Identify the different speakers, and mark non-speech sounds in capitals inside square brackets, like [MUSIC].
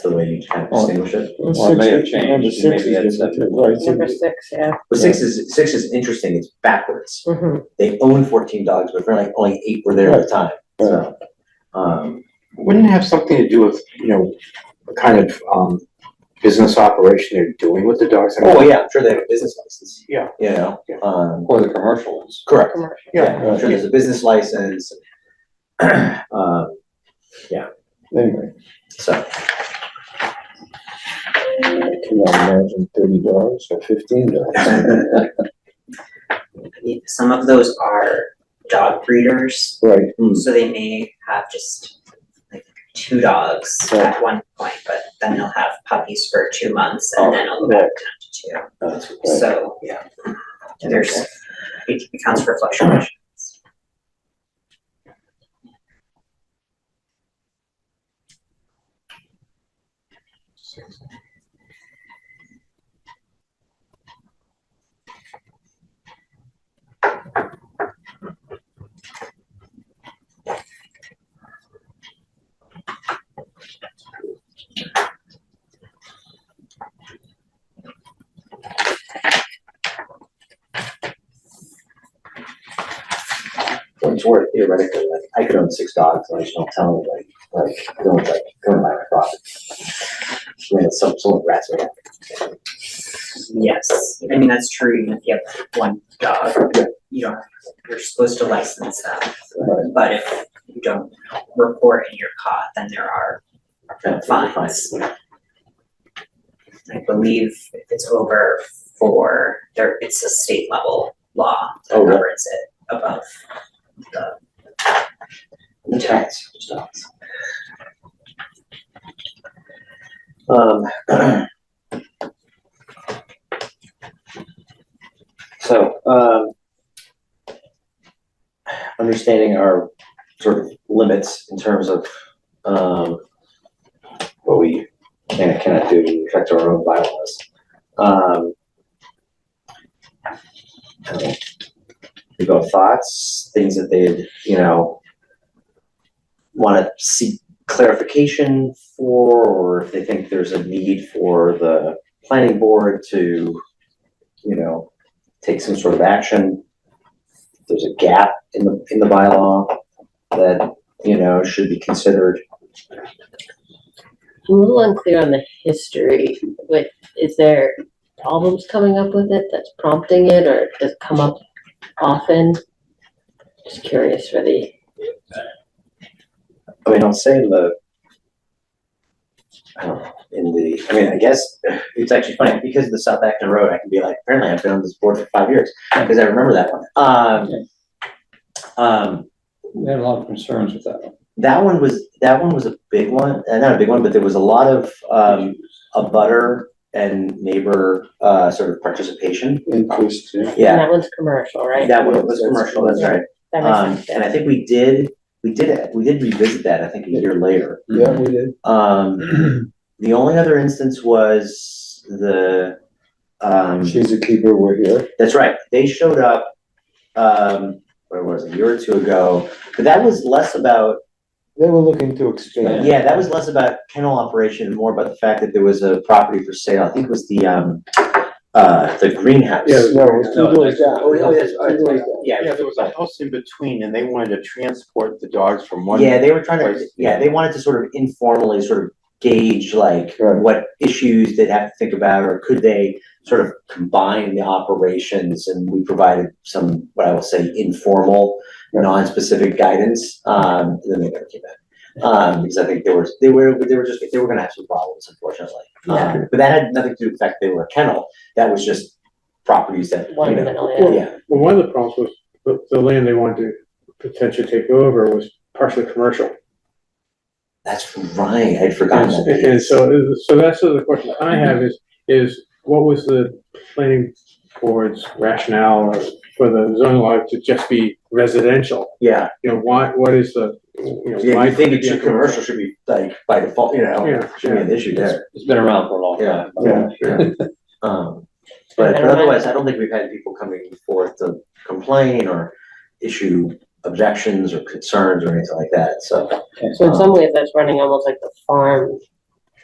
Speaker 1: the way you kind of distinguish it.
Speaker 2: Well, it may have changed,
Speaker 3: Number
Speaker 2: and
Speaker 3: six
Speaker 2: maybe that's
Speaker 3: is,
Speaker 2: something.
Speaker 3: right,
Speaker 4: Number
Speaker 3: so
Speaker 4: six, yeah.
Speaker 1: But six is, six is interesting, it's backwards.
Speaker 4: Mhm.
Speaker 1: They own fourteen dogs, but apparently only eight were there at the time, so. Um,
Speaker 5: Wouldn't it have something to do with, you know, the kind of, um, business operation they're doing with the dogs? I mean,
Speaker 1: oh yeah, I'm sure they have a business license.
Speaker 5: Yeah.
Speaker 1: You know,
Speaker 5: Yeah.
Speaker 1: um,
Speaker 2: or the commercial ones.
Speaker 1: correct,
Speaker 4: Commercial.
Speaker 1: yeah, I'm sure
Speaker 3: Yeah.
Speaker 1: there's a business license. [CLEARS THROAT] Um,
Speaker 3: anyway,
Speaker 1: so, [CLEARS THROAT]
Speaker 3: I cannot imagine thirty dollars or fifteen dollars.
Speaker 6: some of those are dog breeders,
Speaker 3: Right,
Speaker 6: so they may have just like two dogs at one point, but then they'll have puppies for two months and then it'll go back down
Speaker 1: that's
Speaker 6: to two. So, yeah, there's, it accounts for fluctuations.
Speaker 1: When it's worth theoretically, like, I could own six dogs, and I just don't tell anybody, like, I don't like, go and buy my property. I mean, it's some, someone rats me out.
Speaker 6: Yes, I mean, that's true, even if you have one dog, you don't, you're supposed to license them.
Speaker 3: Right.
Speaker 6: But if you don't report and you're caught, then there are
Speaker 1: That's really fine.
Speaker 6: fines. I believe if it's over four, there, it's a state level law that
Speaker 1: Oh, really?
Speaker 6: governs it above the
Speaker 1: The tax stops. Um. So, um. Understanding our sort of limits in terms of, um. What we can and cannot do to affect our own bylaws. Um. I don't know. We've got thoughts, things that they'd, you know, want to seek clarification for, or if they think there's a need for the planning board to, you know, take some sort of action. If There's a gap in the, in the bylaw that, you know, should be considered.
Speaker 4: I'm a little unclear on the history, like, is there problems coming up with it that's prompting it, or does it come up often? Just curious for the,
Speaker 1: I mean, I'll say in the, I don't know, in the, I mean, I guess, it's actually funny, because of the South Acton Road, I can be like, apparently I've been on this board for five years, because I remember that one. Um, um,
Speaker 2: We had a lot of concerns with that one.
Speaker 1: That one was, that one was a big one, uh, not a big one, but there was a lot of, um, a butter and neighbor, uh, sort of participation.
Speaker 3: interest, yeah.
Speaker 4: and
Speaker 1: Yeah,
Speaker 4: that one's commercial, right?
Speaker 1: that one was commercial, that's right.
Speaker 4: That makes
Speaker 1: Um,
Speaker 4: sense,
Speaker 1: and I
Speaker 4: yeah.
Speaker 1: think we did, we did, we did revisit that, I think, a year later.
Speaker 3: Yeah, we did.
Speaker 1: Um, the only other instance was the, um,
Speaker 3: She's a keeper, we're here.
Speaker 1: that's right, they showed up, um, where was it, a year or two ago, but that was less about
Speaker 3: They were looking to expand.
Speaker 1: Yeah, that was less about kennel operation and more about the fact that there was a property for sale. I think it was the, um, uh, the greenhouse.
Speaker 3: Yeah, no, it was
Speaker 1: No,
Speaker 3: two doors down.
Speaker 1: oh, yeah, oh, yes, all right,
Speaker 3: Two doors down.
Speaker 1: Yeah,
Speaker 5: Yeah, there was a house in between and they wanted to transport the dogs from one.
Speaker 1: yeah, they were trying to,
Speaker 5: place.
Speaker 1: yeah, they wanted to sort of informally sort of gauge like
Speaker 3: Right.
Speaker 1: what issues they'd have to think about, or could they sort of combine the operations? And we provided some, what I will say, informal,
Speaker 3: Right.
Speaker 1: non-specific guidance, um, and then they never came back. Um, because I think they were, they were, they were just, they were gonna have some problems unfortunately. Um, But that had nothing to do with the fact they were a kennel, that was just properties that, you
Speaker 4: One
Speaker 1: know,
Speaker 4: middle, yeah.
Speaker 1: yeah,
Speaker 7: Well, one of the problems was the, the land they wanted to potentially take over was partially commercial.
Speaker 1: that's right, I'd forgotten
Speaker 7: And,
Speaker 1: that.
Speaker 7: and so, so that's sort of the question I have is, is what was the planning board's rationale for the zoning law to just be residential?
Speaker 1: Yeah,
Speaker 7: You know, why, what is the, you know,
Speaker 1: yeah,
Speaker 7: why?
Speaker 1: you think it
Speaker 7: should
Speaker 1: should,
Speaker 7: be
Speaker 1: commercial should be like by default, you know,
Speaker 7: Yeah,
Speaker 1: should be an issue there.
Speaker 2: It's been around for a long
Speaker 1: Yeah,
Speaker 2: time.
Speaker 7: yeah,
Speaker 1: [LAUGHS] Um, but, but otherwise, I don't think we've had people coming forth to complain or issue objections or concerns or anything like that, so.
Speaker 4: So in some ways, that's running almost like the farm